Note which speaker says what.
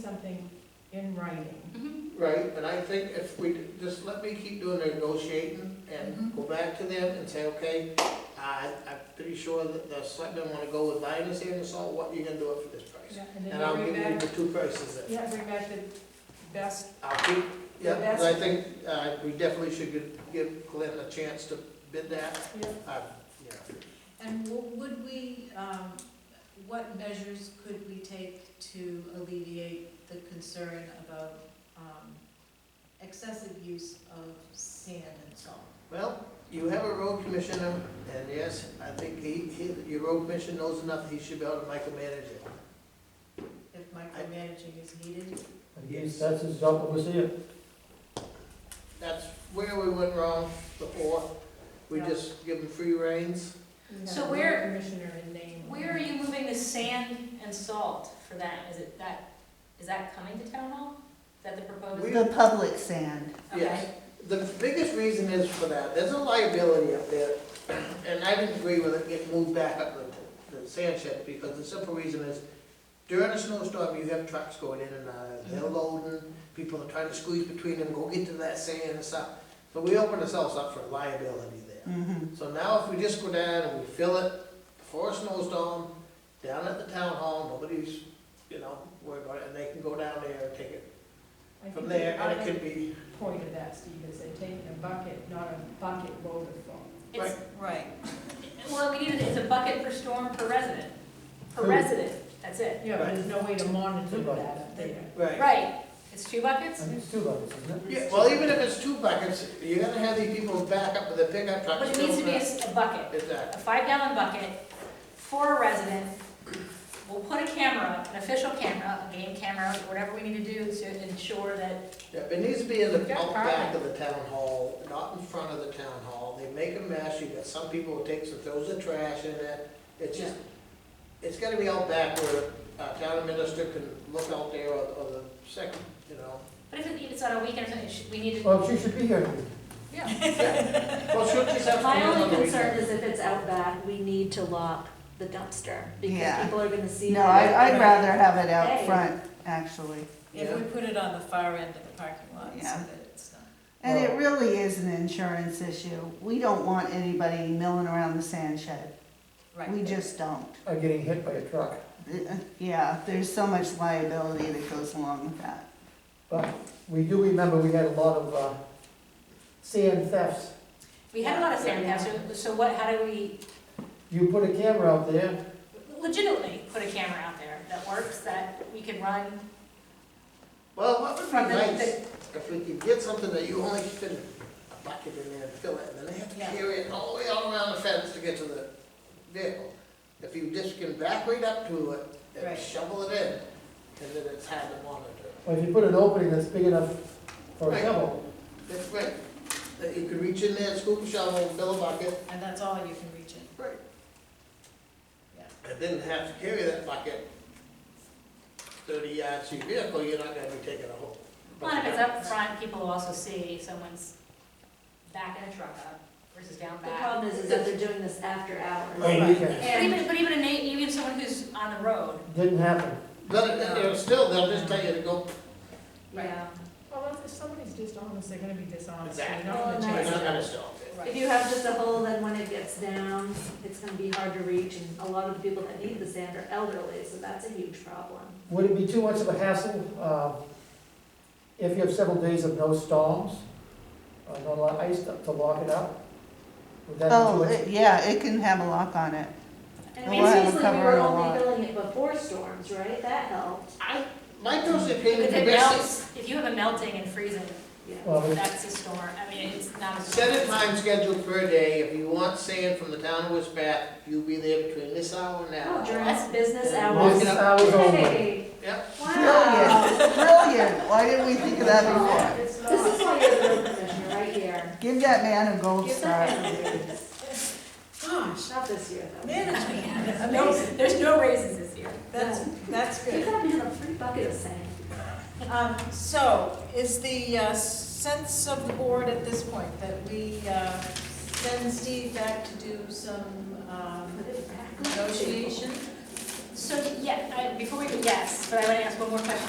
Speaker 1: something in writing.
Speaker 2: Mm-hmm.
Speaker 3: Mhm.
Speaker 2: Right, but I think if we, just let me keep doing the negotiating
Speaker 1: Mm-hmm.
Speaker 2: and go back to them and say, okay, I, I'm pretty sure that the selectmen wanna go with Linus here and so what you gonna do it for this price?
Speaker 1: Yeah, And then
Speaker 2: And I'll
Speaker 1: you
Speaker 2: give
Speaker 1: bring
Speaker 2: you
Speaker 1: back,
Speaker 2: the two prices then.
Speaker 1: yeah, bring back the best,
Speaker 2: I'll keep, yeah,
Speaker 1: The best-
Speaker 2: 'cause I think, uh, we definitely should give- give Glenn a chance to bid that,
Speaker 1: yeah.
Speaker 2: uh, yeah.
Speaker 3: And w- would we, um, what measures could we take to alleviate the concern about um, excessive use of sand and salt?
Speaker 2: Well, you have a road commissioner, and yes, I think he, he, your road commissioner knows enough, he should be able to micromanage it.
Speaker 3: If micromanaging is needed?
Speaker 4: Yes, that's his job, obviously, yeah.
Speaker 2: That's where we went wrong before, we
Speaker 1: Yeah.
Speaker 2: just give them free reins.
Speaker 1: We have
Speaker 5: So
Speaker 1: the road
Speaker 5: where-
Speaker 1: Commissioner in name.
Speaker 5: Where are you moving the sand and salt for that? Is it that, is that coming to town hall? Is that the proposed?
Speaker 2: We-
Speaker 6: The public sand.
Speaker 2: Yes, the biggest reason is for that, there's a liability up there, and I didn't agree with it getting moved back up the, the sand shed, because the simple reason is, during a snowstorm, you have trucks going in and out, they're loading, people are trying to squeeze between them, go get to that sand and stuff. So we open ourselves up for liability there.
Speaker 6: Mm-hmm.
Speaker 2: So now if we just go down and we fill it before a snowstorm, down at the town hall, nobody's, you know, worried about it, and they can go down there and take it
Speaker 1: I think
Speaker 2: from there, and it
Speaker 1: the
Speaker 2: could be,
Speaker 1: other point of that, Steve, is they take a bucket, not a bucket load of salt.
Speaker 5: It's,
Speaker 3: Right.
Speaker 5: well, we need, it- it's a bucket per storm per resident, per
Speaker 4: Who?
Speaker 5: resident, that's it.
Speaker 1: Yeah, but there's no way to monitor
Speaker 4: Right.
Speaker 1: that up there.
Speaker 2: right.
Speaker 5: Right, it's two buckets?
Speaker 4: And it's two levels, isn't it?
Speaker 2: Yeah, well, even if it's two buckets, you're gonna have these people back up with a pickup truck.
Speaker 5: But it needs to be a s- a bucket.
Speaker 2: Exactly,
Speaker 5: a five gallon bucket for a resident. We'll put a camera, an official camera, a game camera, whatever we need to do to ensure that,
Speaker 2: yeah, it needs to be in the
Speaker 5: Got
Speaker 2: out back
Speaker 5: carpet.
Speaker 2: of the town hall, not in front of the town hall, they make a mess, you got some people who takes and throws their trash in it, it's just, it's gotta be out back where, uh, town administrator can look out there or, or the second, you know.
Speaker 5: but if it- it's on a weekend or something, it should- we need to.
Speaker 4: Well, she should be here.
Speaker 5: Yeah.
Speaker 2: Well, she'll just have to.
Speaker 7: My
Speaker 2: come in on
Speaker 7: only
Speaker 2: the
Speaker 7: concern
Speaker 2: weekend.
Speaker 7: is if it's out back, we need to lock the dumpster, because
Speaker 6: Yeah.
Speaker 7: people are gonna see
Speaker 6: No,
Speaker 7: that.
Speaker 6: I, I'd rather have it out
Speaker 7: Hey.
Speaker 6: front, actually.
Speaker 3: If we put it on the far end of the parking lot, so
Speaker 6: Yeah.
Speaker 3: that it's not.
Speaker 6: And it really is an insurance issue. We don't want anybody milling around the sand shed. We just don't.
Speaker 4: Or getting hit by a truck.
Speaker 6: Uh, Yeah, there's so much liability that goes along with that.
Speaker 4: But we do remember we had a lot of, uh, sand thefts.
Speaker 5: We had a lot of sand thefts, so- so what, how do we
Speaker 4: You put a camera out there,
Speaker 5: legitimately put a camera out there that works, that we can run
Speaker 2: Well, what would be
Speaker 5: from the,
Speaker 2: nice,
Speaker 5: the-
Speaker 2: if we could get something that you only fit a bucket in there and fill it, and then they have to
Speaker 5: Yeah.
Speaker 2: carry it all the way all around the fence to get to the vehicle. If you just can back right up to it and
Speaker 3: Right.
Speaker 2: shovel it in, and then it's hard to monitor.
Speaker 4: or if you put an opening that's big enough for a
Speaker 2: Right.
Speaker 4: shovel.
Speaker 2: That's right, that you could reach in there, scoop a shovel, fill a bucket,
Speaker 3: And that's all you can reach in.
Speaker 2: Right.
Speaker 3: Yeah.
Speaker 2: and then have to carry that bucket thirty yards to your vehicle, you're not gonna be taking a whole.
Speaker 5: well, if it's up front, people will also see someone's backing a truck up versus down
Speaker 7: The
Speaker 5: back.
Speaker 7: problem is, is that they're doing this after hours.
Speaker 4: Right, you can.
Speaker 5: But
Speaker 7: And
Speaker 5: even, but even a na, even someone who's on the road,
Speaker 4: Didn't happen.
Speaker 2: But, it- it'll still, they'll just tell you to go
Speaker 7: Yeah,
Speaker 1: Well, if somebody's dishonest, they're gonna be dishonest. They're
Speaker 2: Exactly.
Speaker 1: not gonna
Speaker 7: Well,
Speaker 2: We're
Speaker 1: change
Speaker 2: not
Speaker 1: that.
Speaker 2: gonna stop it.
Speaker 7: if you have just a hole, then when it gets down, it's gonna be hard to reach, and a lot of the people that need the sand are elderly, so that's a huge problem.
Speaker 4: Would it be too much of a hassle, uh, if you have several days of no storms? Or not a lot of ice to to lock it up? Would that be too
Speaker 6: Oh,
Speaker 4: much?
Speaker 6: it- yeah, it can have a lock on it.
Speaker 7: And
Speaker 6: We'll have a
Speaker 7: previously, we
Speaker 6: cover
Speaker 7: were
Speaker 6: on a lot.
Speaker 7: only filling it before storms, right? That helped,
Speaker 2: I, my personal opinion,
Speaker 5: If
Speaker 2: the
Speaker 5: it
Speaker 2: best,
Speaker 5: melts, if you have a melting and freezing,
Speaker 7: yeah.
Speaker 4: Well, it-
Speaker 5: that's a storm, I mean, it's not a storm.
Speaker 2: set a time schedule for a day, if you want sand from the town of West Bath, you'll be there between this hour and that
Speaker 7: Oh,
Speaker 2: hour.
Speaker 7: during business
Speaker 4: Most
Speaker 7: hours.
Speaker 4: hours only.
Speaker 7: Hey,
Speaker 2: Yep,
Speaker 7: wow.
Speaker 6: Brilliant, brilliant. Why didn't we think of that before?
Speaker 1: It's not.
Speaker 7: This is why you're the road commissioner, right here.
Speaker 6: Give that man a gold
Speaker 7: Give
Speaker 6: star.
Speaker 7: that man a raise.
Speaker 3: Gosh,
Speaker 7: Not this year, though.
Speaker 3: management,
Speaker 5: No,
Speaker 3: amazing.
Speaker 5: There's no raises this year.
Speaker 3: That's, that's
Speaker 7: Give
Speaker 3: good.
Speaker 7: that man a free bucket of sand.
Speaker 3: Um, So is the uh, sense of the board at this point that we uh, send Steve back to do some um,
Speaker 7: Put it back on the table.
Speaker 3: negotiation?
Speaker 5: So, yeah, I, before we, yes, but I want to ask one more question.